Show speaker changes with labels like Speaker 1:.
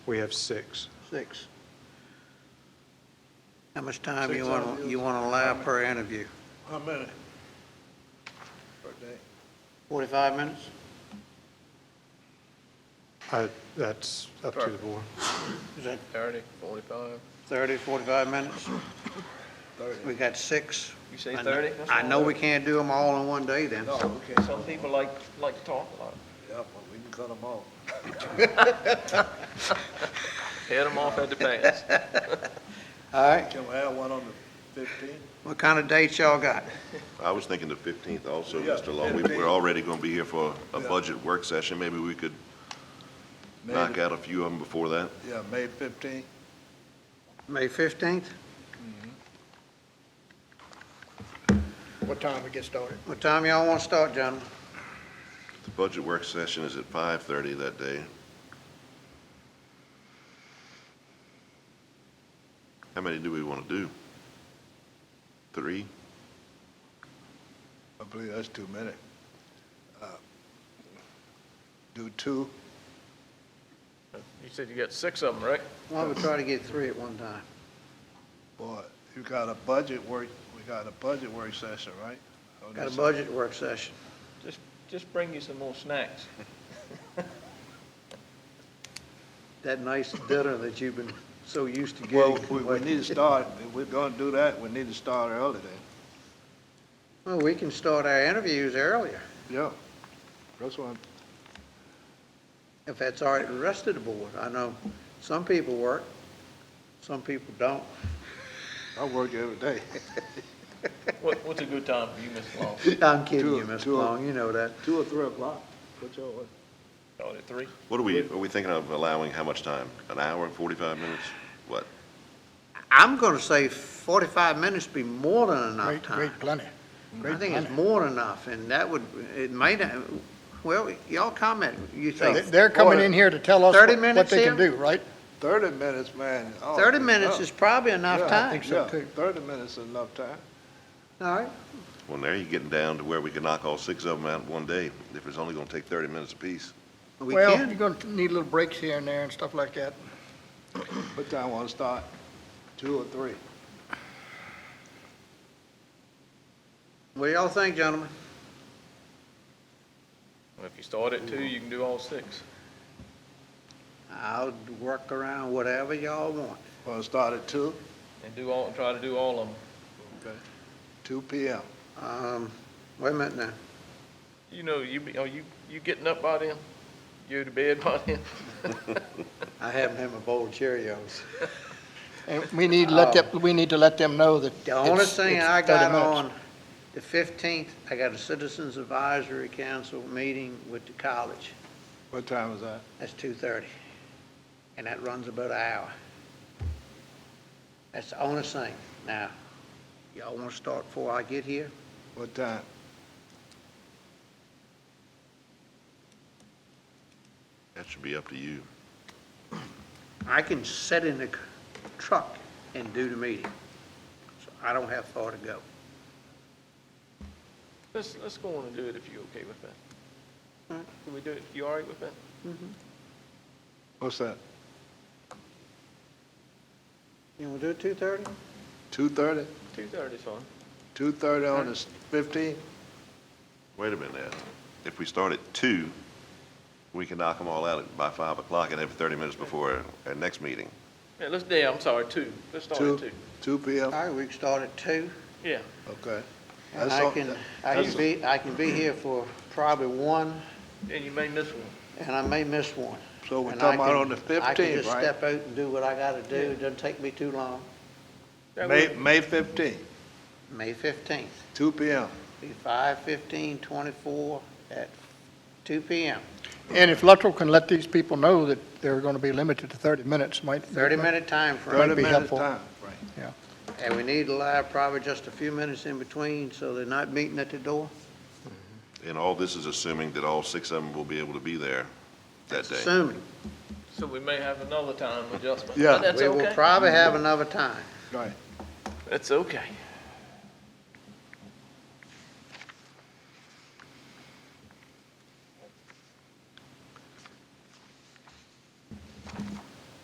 Speaker 1: We have six.
Speaker 2: Six. How much time you want, to you want to allow per interview?
Speaker 3: How many? Per day?
Speaker 2: 45 minutes?
Speaker 1: I- That's up to the board.
Speaker 2: Is that
Speaker 4: Thirty, forty-five?
Speaker 2: 30, 45 minutes? We
Speaker 3: Oh,
Speaker 4: Thirty.
Speaker 2: got six.
Speaker 4: You say
Speaker 2: I kn-
Speaker 4: thirty? That's
Speaker 2: I
Speaker 4: not
Speaker 2: know we
Speaker 4: bad.
Speaker 2: can't do them all in one day then.
Speaker 3: No, we can't,
Speaker 4: Some people like, like to talk a lot.
Speaker 3: yeah, but we can cut them off.
Speaker 4: Head them off at the pass.
Speaker 2: All right,
Speaker 3: Can we have one on the fifteenth?
Speaker 2: what kind of dates y'all got?
Speaker 5: I was thinking the 15th also,
Speaker 3: Yeah,
Speaker 5: Mr. Law. We-
Speaker 3: 15th.
Speaker 5: We're already going to be here for a
Speaker 3: Yeah.
Speaker 5: budget work session. Maybe we could knock out a few of them before that.
Speaker 3: Yeah, May fifteenth.
Speaker 2: May 15th?
Speaker 6: What time we get started?
Speaker 2: What time y'all want to start, gentlemen?
Speaker 5: The budget work session is at 5:30 that day. How many do we want to do? Three?
Speaker 3: I believe that's too many. Uh, Do two,
Speaker 4: You said you got six of them, right?
Speaker 2: Why don't we try to get three at one time?
Speaker 3: boy, you got a budget work, we got a budget work session, right? Oh, On
Speaker 2: Got a
Speaker 3: this-
Speaker 2: budget work session.
Speaker 4: Just, just bring you some more snacks.
Speaker 2: That nice dinner that you've been so used to getting.
Speaker 3: Well, we, we need to start, if we're gonna do that, we need to start early then.
Speaker 2: Well, we can start our interviews earlier,
Speaker 3: Yeah, that's what I'm
Speaker 2: if that's all right with the rest of the board. I know some people work, some people don't.
Speaker 3: I work every day.
Speaker 4: What, what's a good time for you, Mr. Long?
Speaker 2: I'm kidding you,
Speaker 3: Two-
Speaker 2: Mr.
Speaker 3: two-
Speaker 2: Long, you know that.
Speaker 3: Two or three o'clock, what's your, what?
Speaker 4: Start at three?
Speaker 5: What are we, are we thinking of allowing how much time? An hour and 45 minutes? What?
Speaker 2: I'm gonna say forty-five minutes be more than enough
Speaker 6: Great,
Speaker 2: time.
Speaker 6: great plenty.
Speaker 2: I
Speaker 6: Great
Speaker 2: think it's
Speaker 6: plenty.
Speaker 2: more than enough, and that would, it may not, well, y'all comment, you
Speaker 6: They-
Speaker 2: think
Speaker 6: They're coming in here to tell us
Speaker 2: 30
Speaker 6: what- what
Speaker 2: minutes
Speaker 6: they can
Speaker 2: here?
Speaker 6: do, right?
Speaker 3: Thirty minutes, man. Oh,
Speaker 2: thirty
Speaker 3: yeah.
Speaker 2: minutes is probably enough
Speaker 3: Yeah,
Speaker 6: I
Speaker 2: time.
Speaker 6: think so,
Speaker 3: yeah,
Speaker 6: too.
Speaker 3: Thirty minutes is enough time.
Speaker 2: All right,
Speaker 5: Well, now you're getting down to where we can knock all six of them out in one day, if it's only going to take 30 minutes apiece.
Speaker 2: we
Speaker 6: Well,
Speaker 2: can.
Speaker 6: you're going to need little breaks here and there and stuff like that.
Speaker 3: What time wanna start? Two or three?
Speaker 2: What do y'all think, gentlemen?
Speaker 4: Well, If you start at two, you can do all six.
Speaker 2: I'll work around whatever y'all want.
Speaker 3: Wanna start at two?
Speaker 4: And do all, try to do all of them.
Speaker 3: Okay. Two P M.
Speaker 2: Um, wait a minute now.
Speaker 4: You know, you, be- are you, you getting up by then? You to bed by then?
Speaker 2: I haven't had my bowl of Cheerios.
Speaker 6: And we need to let them, we need to let them know that
Speaker 2: Oh. The only
Speaker 6: it's-
Speaker 2: thing
Speaker 6: it's
Speaker 2: I
Speaker 6: 30
Speaker 2: got
Speaker 6: minutes.
Speaker 2: on the fifteenth, I got a Citizens Advisory Council meeting with the college.
Speaker 3: What time is that?
Speaker 2: That's two thirty. And that runs about an hour. That's the only thing. Now, y'all wanna start before I get here?
Speaker 3: What time?
Speaker 5: That should be up to you.
Speaker 2: I can sit in the c- truck and do the meeting. So I don't have far to go.
Speaker 4: Let's, let's go on and do it if you're okay with that.
Speaker 2: Alright.
Speaker 4: Can we do it? You all right with that?
Speaker 3: What's that?
Speaker 2: You wanna do it two thirty?
Speaker 3: Two thirty?
Speaker 4: Two thirty's fine.
Speaker 3: Two thirty on the fifteenth?
Speaker 5: Wait a minute now. If we start at two, we can knock them all out at- by five o'clock and have it thirty minutes before our next meeting.
Speaker 4: Yeah, let's, yeah, I'm sorry, two. Let's start
Speaker 3: Two.
Speaker 4: at two.
Speaker 3: Two P M?
Speaker 2: All right, we can start at two.
Speaker 4: Yeah.
Speaker 3: Okay.
Speaker 2: And
Speaker 3: That's
Speaker 2: I
Speaker 3: all-
Speaker 2: can, I can
Speaker 3: that's-
Speaker 2: be, I can be here for probably one,
Speaker 4: And you may miss one.
Speaker 2: and I may miss one.
Speaker 3: So we're
Speaker 2: And I
Speaker 3: talking about
Speaker 2: can-
Speaker 3: on the
Speaker 2: I can just
Speaker 3: fifteenth, right?
Speaker 2: step out and do what I gotta do, it doesn't take me too long.
Speaker 4: That
Speaker 3: May,
Speaker 4: work?
Speaker 3: May fifteenth,
Speaker 2: May fifteenth,
Speaker 3: two P M.
Speaker 2: be five fifteen twenty-four at two P M.
Speaker 6: And if Luttrell can let these people know that they're going to be limited to 30 minutes, might.
Speaker 2: Thirty-minute time
Speaker 6: That'd
Speaker 2: frame,
Speaker 3: Thirty
Speaker 6: be
Speaker 3: minutes
Speaker 6: helpful.
Speaker 3: time. Right.
Speaker 2: and we need to allow probably just a few minutes in between, so they're not meeting at the door.
Speaker 5: And all this is assuming that all six of them will be able to be there that day.
Speaker 2: Assuming,
Speaker 4: So we may have another time adjustment.
Speaker 3: Yeah.
Speaker 4: But That's
Speaker 2: we will
Speaker 4: okay.
Speaker 2: probably have another time.
Speaker 3: Right.
Speaker 4: That's okay.